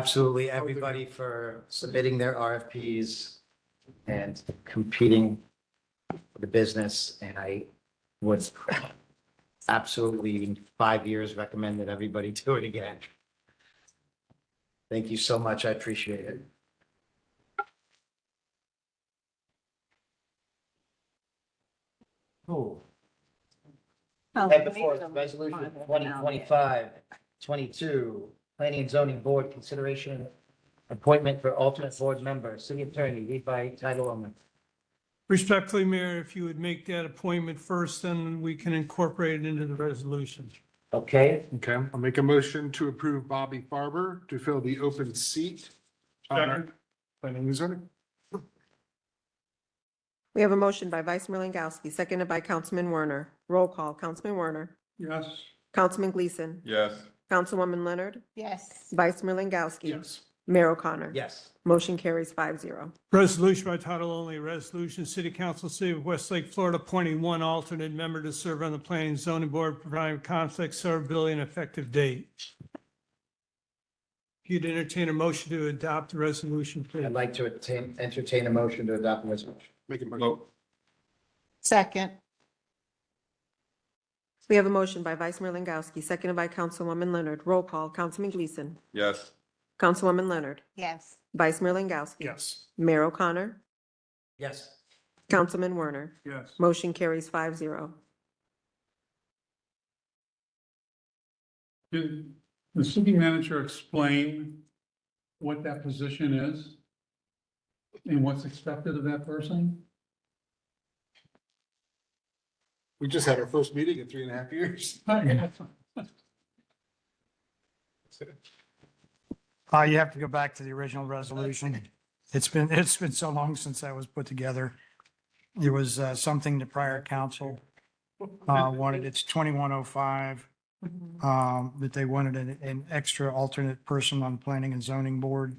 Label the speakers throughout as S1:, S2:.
S1: absolutely everybody for submitting their RFPs and competing for the business. And I would absolutely, in five years, recommend that everybody do it again. Thank you so much. I appreciate it. Cool.
S2: Oh,
S1: Item before us, resolution 2025, 22, planning and zoning board consideration appointment for alternate board member, city attorney, read by title only.
S3: Respectfully, Mayor, if you would make that appointment first, then we can incorporate it into the resolution.
S1: Okay,
S4: Okay, I'll make a motion to approve Bobby Farber to fill the open seat. on our Planning and zoning.
S2: We have a motion by Vice Mayor Langowski, seconded by Councilman Werner. Roll call, Councilman Werner.
S4: Yes.
S2: Councilman Gleason.
S5: yes,
S2: Councilwoman Leonard.
S6: Yes,
S2: Vice Mayor Langowski.
S4: Yes.
S2: Mayor O'Connor.
S1: yes,
S2: Motion carries five zero.
S3: Resolution by title only, resolution, City Council, City of Westlake, Florida, appointing one alternate member to serve on the Planning and Zoning Board, providing conflict, servability, and effective date. If you'd entertain a motion to adopt the resolution, please.
S1: I'd like to entertain, entertain a motion to adopt the resolution.
S4: Make a motion.
S5: Mo-
S6: second,
S2: We have a motion by Vice Mayor Langowski, seconded by Councilwoman Leonard. Roll call, Councilman Gleason.
S5: yes,
S2: Councilwoman Leonard.
S6: yes,
S2: Vice Mayor Langowski.
S4: Yes.
S2: Mayor O'Connor.
S1: Yes,
S2: Councilman Werner.
S4: Yes.
S2: Motion carries five zero.
S7: Did the city manager explain what that position is? And what's expected of that person?
S4: We just had our first meeting in three and a half years.
S8: Uh, you have to go back to the original resolution. It's been, it's been so long since that was put together. It was, uh, something the prior council, uh, wanted. It's twenty-one oh five. Um, that they wanted an, an extra alternate person on planning and zoning board.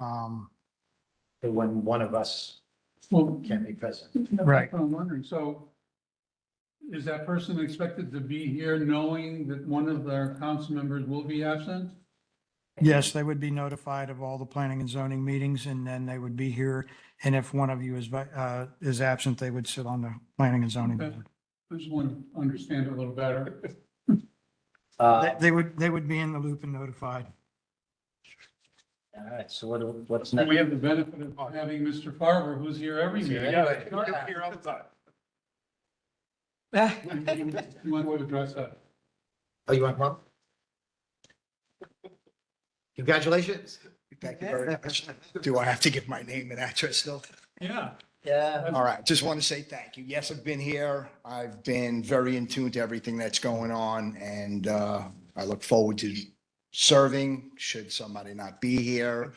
S8: Um,
S1: the one, one of us
S7: Well,
S1: can be present.
S8: Right.
S7: I'm wondering, so is that person expected to be here knowing that one of their council members will be absent?
S8: yes, they would be notified of all the planning and zoning meetings and then they would be here. And if one of you is, vi- uh, is absent, they would sit on the planning and zoning
S7: Okay.
S8: board.
S7: I just want to understand it a little better.
S1: Uh,
S8: They- They would, they would be in the loop and notified.
S1: all right, so what, do- what's
S7: And
S1: next?
S7: we have the benefit of having Mr. Farber, who's here every meeting.
S1: Yeah.
S4: Here all the time.
S7: You want to address that?
S1: Oh, you want one? Congratulations.
S9: Thank you very much. Do I have to give my name and address still?
S7: Yeah.
S1: Yeah.
S9: All right, just want to say thank you. Yes, I've been here. I've been very in tune to everything that's going on and uh, I look forward to serving should somebody not be here.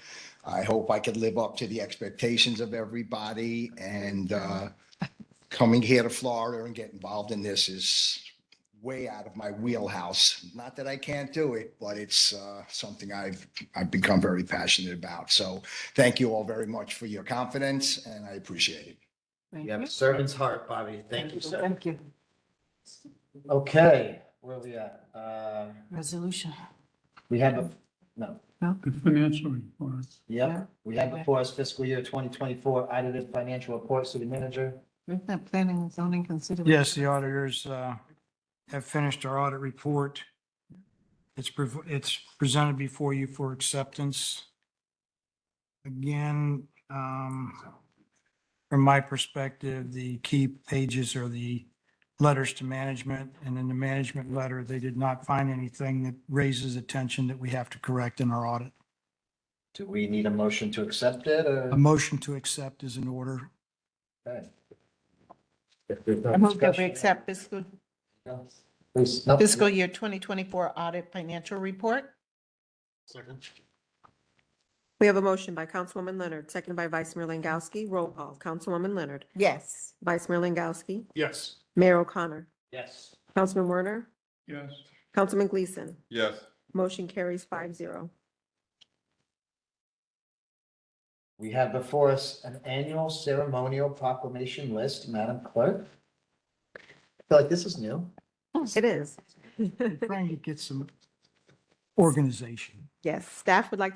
S9: I hope I could live up to the expectations of everybody and uh, coming here to Florida and get involved in this is way out of my wheelhouse. Not that I can't do it, but it's uh, something I've, I've become very passionate about. So thank you all very much for your confidence and I appreciate it.
S1: You have a servant's heart, Bobby. Thank you, sir. Thank you. Okay, where are we at? Um
S6: resolution.
S1: we have, a no,
S7: The financial report.
S1: yep, we have before us fiscal year twenty twenty-four audited financial report, city manager.
S6: Isn't that planning and zoning consideration?
S8: Yes, the auditors uh, have finished our audit report. It's, prev- it's presented before you for acceptance. Again, um, from my perspective, the key pages are the letters to management, and in the management letter, they did not find anything that raises attention that we have to correct in our audit.
S1: Do we need a motion to accept it or?
S8: A motion to accept is in order.
S1: Okay. If there's no
S6: I move that we
S1: discussion-
S6: accept fiscal,
S1: Please, no.
S6: fiscal year twenty twenty-four audit financial report.
S4: Second.
S2: We have a motion by Councilwoman Leonard, seconded by Vice Mayor Langowski. Roll call, Councilwoman Leonard.
S6: Yes,
S2: Vice Mayor Langowski.
S4: Yes.
S2: Mayor O'Connor.
S1: Yes,
S2: Councilman Werner.
S7: Yes.
S2: Councilman Gleason.
S5: yes.
S2: Motion carries five zero.
S1: we have before us an annual ceremonial proclamation list, Madam Clerk. I feel like this is new.
S2: It is.
S8: Trying to get some organization.
S2: Yes, staff would like to.